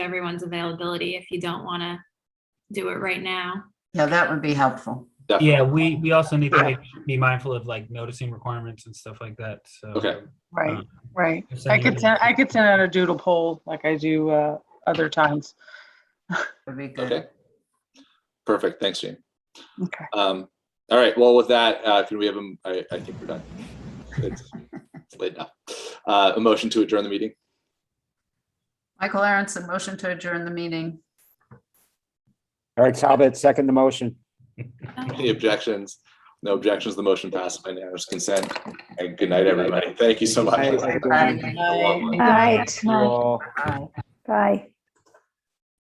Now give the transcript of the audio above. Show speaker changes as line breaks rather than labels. everyone's availability if you don't want to do it right now.
Yeah, that would be helpful.
Yeah, we, we also need to make- be mindful of like noticing requirements and stuff like that, so.
Okay.
uh,
Right, right.
if
I
somebody-
could send, I could send out a doodle poll like I do uh, other times.
Would be good.
Okay. Perfect. Thanks, Jean.
Okay.
Um, all right. Well, with that, uh, can we have, a- I, I think we're done. It's it's late now. Uh, a motion to adjourn the meeting.
Michael Aronson, motion to adjourn the meeting.
Eric Talbot, second the motion.
Any objections? No objections. The motion passed by unanimous consent. And good night, everybody. Thank you so much.
Thank you.
Bye.
Bye.
All right.
You all.
Bye.